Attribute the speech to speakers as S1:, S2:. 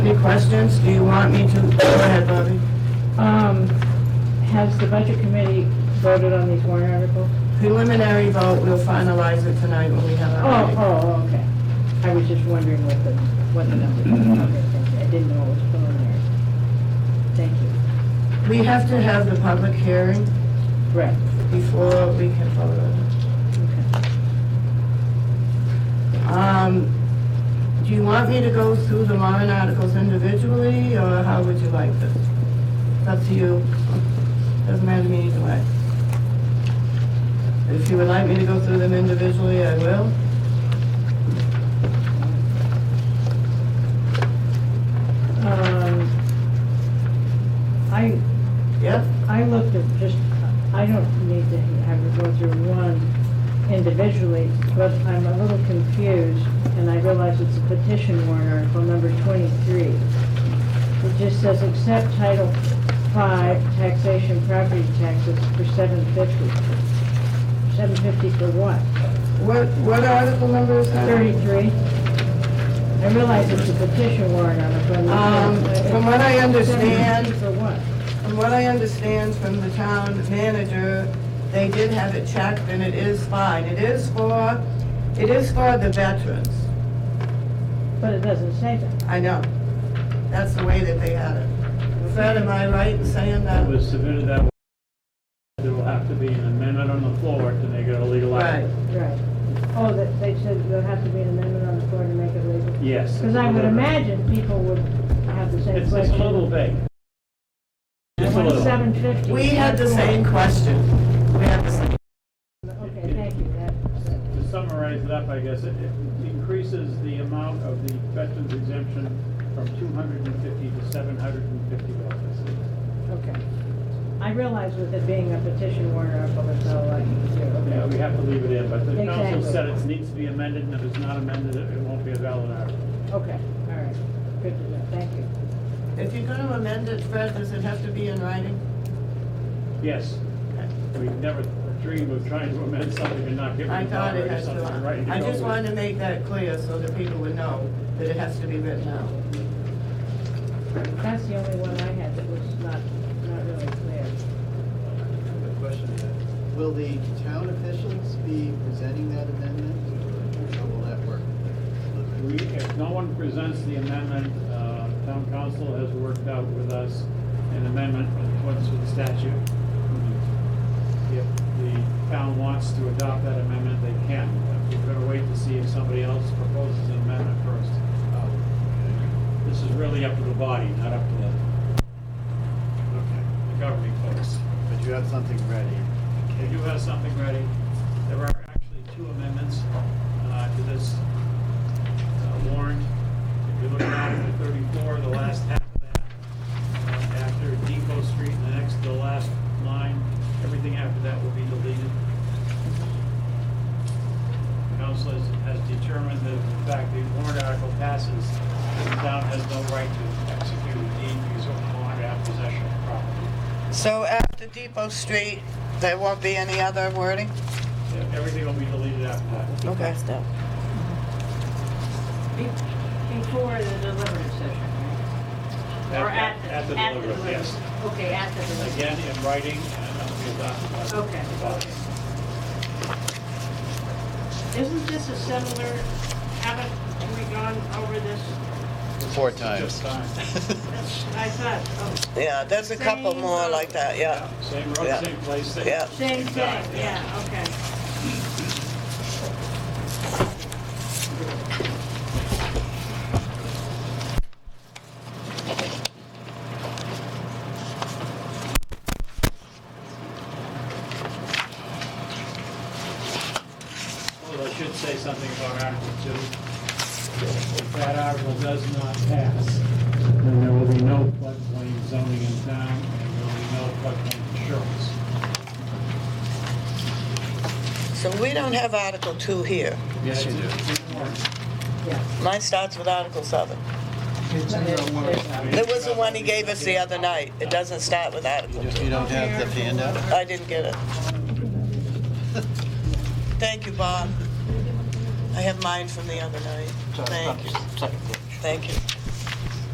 S1: any questions? Do you want me to, go ahead, Bobby.
S2: Um, has the budget committee voted on these warrant articles?
S1: Preliminary vote, we'll finalize it tonight when we have our
S2: Oh,
S1: meeting.
S2: oh, okay. I was just wondering what the, what the number was. Okay, thank you. I didn't know it was preliminary. Thank you.
S1: We have to have the public hearing
S2: Right,
S1: before we can vote on
S2: okay.
S1: it. Um, do you want me to go through the warrant articles individually, or how would you like this? It's up to you. Doesn't matter to me either way. If you would like me to go through them individually, I will.
S2: Um, I,
S1: Yep?
S2: I looked at just, I don't need to have you go through one individually, but I'm a little confused, and I realize it's a petition warrant article number 23. It just says, accept Title 5 taxation property taxes for 750. 750 for what?
S1: What, what article number is that?
S2: 33? I realize it's a petition warrant article. and
S1: Um,
S2: it's-
S1: from what I understand-
S2: 750 For what?
S1: From what I understand from the town manager, they did have it checked, and it is fine. It is for, it is for the veterans.
S2: But it doesn't say that.
S1: I know. That's the way that they had it. Was that, am I right in saying
S3: that
S1: that?
S3: was submitted that way, there will have to be an amendment on the floor, and they gotta legalize
S1: Right.
S3: it.
S2: Right. Oh, that they said there'll have to be an amendment on the floor to make it legal?
S3: Yes.
S2: Because I would imagine people would have the same
S3: It's, it's a
S2: question.
S3: little vague. Just a little.
S2: Seven fifty.
S1: We had the same question. We had the same.
S2: Okay, thank you, that,
S3: To summarize it up, I guess, it it increases the amount of the veterans exemption from two hundred and fifty to seven hundred and fifty dollars.
S2: okay. I realize with it being a petition warrant article, that's all I can do,
S3: Yeah, we
S2: okay.
S3: have to leave it in, but the council
S2: Exactly.
S3: said it needs to be amended, and if it's not amended, it it won't be a valid article.
S2: Okay, all right, good to know, thank you.
S1: If you're gonna amend it, Fred, does it have to be in writing?
S3: Yes, we never dream of trying to amend something and not giving
S1: I
S3: the
S1: thought it
S3: moderator
S1: had to.
S3: something right to
S1: I
S3: go
S1: just
S3: with.
S1: wanted to make that clear so that people would know that it has to be written out.
S2: That's the only one I had that was not, not really clear.
S4: Good question. Will the town officials be presenting that amendment, or how will that work?
S3: We, if no one presents the amendment, uh, town council has worked out with us an amendment in accordance with the statute. If the town wants to adopt that amendment, they can. We've got to wait to see if somebody else proposes an amendment first. This is really up to the body, not up to the, the governing folks.
S4: But you have something ready.
S3: They do have something ready. There are actually two amendments uh, to this uh, warrant. If you look at Article 34, the last half of that, uh, after Depot Street and the next, to the last line, everything after that will be deleted. The Council has has determined that in fact the warrant article passes, the town has no right to execute a deed because of warrant after possession of property.
S1: So after Depot Street, there won't be any other wording?
S3: Yeah, Everything will be deleted after that.
S1: Okay.
S5: Before the deliberative session, right? Or
S3: At- At the deliberative, yes.
S5: deliberative. Okay, at the deliberative.
S3: Again, in writing, and that'll be adopted by the
S5: Okay,
S3: body.
S5: Isn't this a similar, haven't we gone over this?
S4: Four
S3: Just time.
S5: That's- I thought, Oh,
S1: Yeah, there's a couple
S5: Same
S1: more
S5: road.
S1: like that, yeah.
S3: Same
S1: Yeah.
S3: road, same place, same.
S1: Yeah.
S5: oh, same thing,
S3: time,
S5: yeah, okay.
S3: Although I should say something about Article 2. If that article does not pass, then there will be no floodplain zoning in town, and there will be no floodplain insurance.
S1: So we don't have Article 2 here.
S3: Yes, you do.
S1: Mine starts with Article 7. There was the one he gave us the other night. It doesn't start with Article 2.
S4: You don't have the handout?
S1: I didn't get it. Thank you, Bob. I have mine from the other night. Thank you. Thank you.